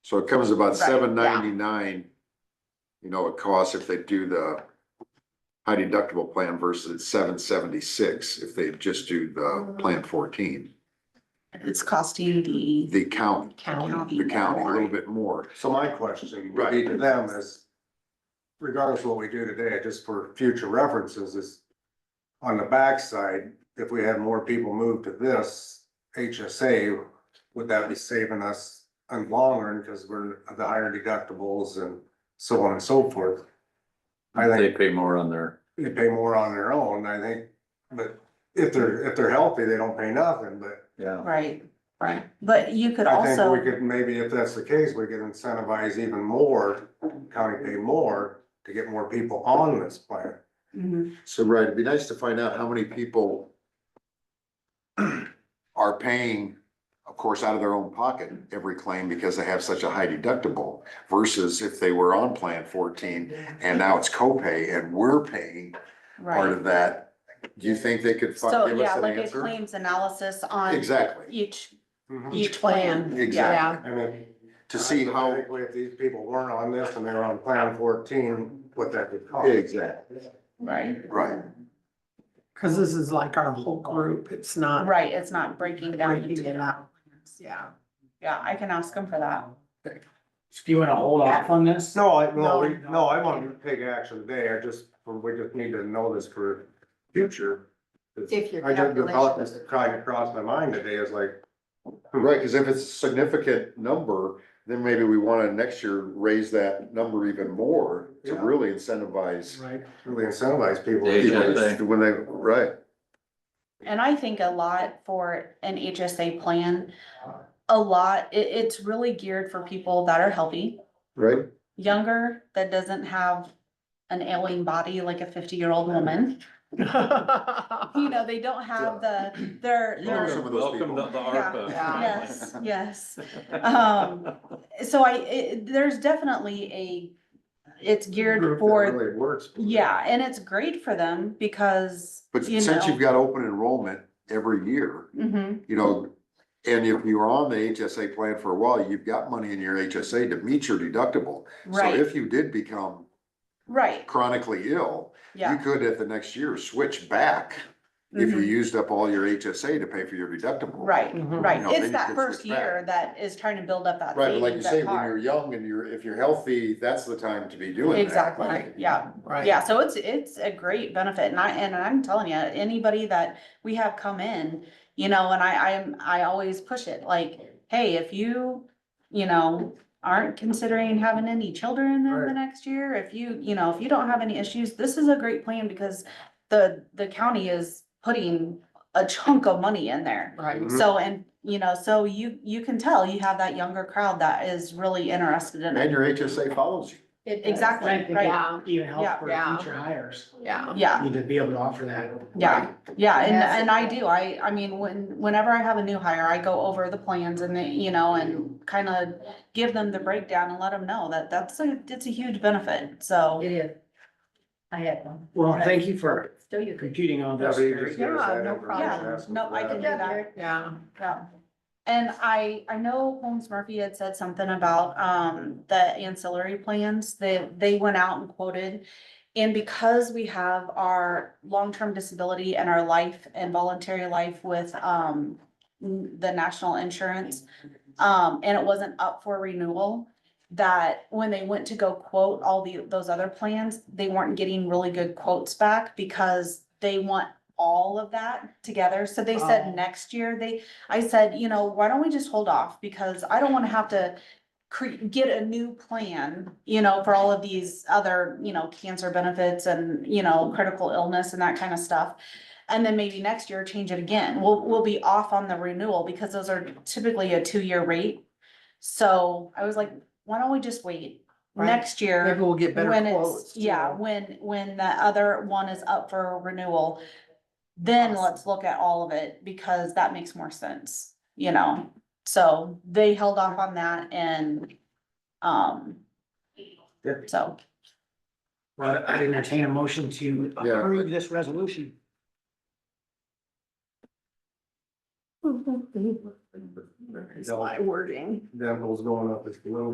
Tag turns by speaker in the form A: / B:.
A: So it comes about
B: Right, yeah.
A: seven ninety-nine, you know, it costs if they do the high deductible plan versus seven seventy-six if they just do the
B: Mm-hmm.
A: plan fourteen.
B: It's costing the
A: The count,
B: county.
A: the county a little bit more.
C: So my question would be to them is, regardless of what we do today, just for future references, is on the backside, if we had more people move to this HSA, would that be saving us on long run because we're the higher deductibles and so on and so forth? I think
D: They pay more on their,
C: they pay more on their own, I think, but if they're, if they're healthy, they don't pay nothing, but
D: yeah.
B: Right, right. But you could
C: I think we
B: also,
C: could, maybe if that's the case, we could incentivize even more, county pay more to get more people on this plan.
B: Mhm.
A: So, right, it'd be nice to find out how many people are paying, of course, out of their own pocket every claim because they have such a high deductible versus if they were on plan fourteen and now it's copay and we're paying part
B: right.
A: of that. Do you think they could fi-
B: So,
A: give us
B: yeah,
A: an
B: like a
A: answer?
B: claims analysis on
A: Exactly,
B: each,
C: Mhm.
B: each plan. Yeah.
A: exactly.
C: And then
A: To see how,
C: hypothetically, If these people weren't on this and they were on plan fourteen, what that would cost.
A: exactly,
B: Right,
A: right.
E: Cause this is like our whole group, it's not.
B: right. It's not breaking down.
E: Breaking it
B: into-
E: Yeah.
B: Yeah, I can ask them for that.
F: Do you wanna hold off on this?
C: No, I, no, we- no, I want to take action today, I just, we just need to know this for future.
B: If your
C: I just, the thought that's
B: calculations-
C: trying to cross my mind today is like,
A: Right, because if it's a significant number, then maybe we want to next year raise that number even more to
C: Yeah.
A: really incentivize
E: Right.
C: really incentivize people.
D: Yeah,
A: people
D: yeah.
A: to- when they, right.
B: And I think a lot for an HSA plan, a lot, it, it's really geared for people that are healthy,
A: Right?
B: younger, that doesn't have an ailing body like a fifty-year-old woman. You know, they don't have the, they're,
A: Or some
B: they're,
A: of those
D: Welcome to
A: people.
D: the ARPA.
B: yes, yes. Um, So I, it, there's definitely a, it's geared
C: Group that
B: for,
C: Really works.
B: yeah, and it's great for them because,
A: But
B: you
A: since you've
B: know.
A: got open enrollment every year,
B: Mhm,
A: you know, and if you're on the HSA plan for a while, you've got money in your HSA to meet your deductible. So
B: right,
A: if you did become
B: right,
A: chronically ill, you
B: yeah.
A: could at the next year switch back if you
B: mhm.
A: used up all your HSA to pay for your deductible.
B: Right,
E: Mhm.
B: right.
A: You know, then
B: It's
A: you
B: that
A: can
B: first
A: switch back.
B: year that is trying to build up that
A: Mm-hmm. Right, but like you
B: savings, that
A: say, when
B: car.
A: you're young and you're, if you're healthy, that's the time to be doing that.
B: Exactly, yeah,
E: Right.
B: yeah. So it's, it's a great benefit and I, and I'm telling you, anybody that we have come in, you know, and I, I'm, I always push it like, hey, if you, you know, aren't considering having any children in the
C: Right.
B: next year, if you, you know, if you don't have any issues, this is a great plan because the, the county is putting a chunk of money in there.
E: Right.
C: Mhm.
B: So, and, you know, so you, you can tell you have that younger crowd that is really interested
A: And
B: in it.
A: your HSA follows you.
B: Exactly,
F: I think
B: right.
F: that Even help for
E: Yeah.
F: future hires,
E: Yeah.
B: Yeah,
F: need to be able to offer that.
B: yeah, yeah, and,
E: Yes.
B: and I do, I, I mean, when, whenever I have a new hire, I go over the plans and they, you know, and kind of give them the breakdown and let them know that that's a, it's a huge benefit, so.
G: It is. I had one.
F: Well, thank you for
G: Still you could.
F: computing all
C: Yeah,
F: this.
C: but you just
F: Very
C: give us
E: Yeah,
C: that
E: no
C: information,
B: problem.
C: ask them
B: No,
C: for
B: I can do that.
E: Yeah.
B: Yeah, and I, I know Holmes Murphy had said something about, um, the ancillary plans, they, they went out and quoted. And because we have our long-term disability and our life and voluntary life with, um, n- the national insurance, um, and it wasn't up for renewal, that when they went to go quote all the, those other plans, they weren't getting really good quotes back because they want all of that together. So they
E: Oh.
B: said next year, they, I said, you know, why don't we just hold off? Because I don't wanna have to cre- get a new plan, you know, for all of these other, you know, cancer benefits and, you know, critical illness and that kind of stuff. And then maybe next year change it again. We'll, we'll be off on the renewal because those are typically a two-year rate. So I was like, why don't we just wait
E: Right.
B: next year?
E: Maybe we'll get better
B: When
E: quotes.
B: it's, yeah, when, when the other one is up for renewal, then
E: Awesome.
B: let's look at all of it because that makes more sense, you know? So they held off on that and, um,
C: Yeah.
B: so,
F: Well, I entertain a motion to
A: Yeah.
F: approve this resolution.
E: It's my wording.
C: Then what's going up is below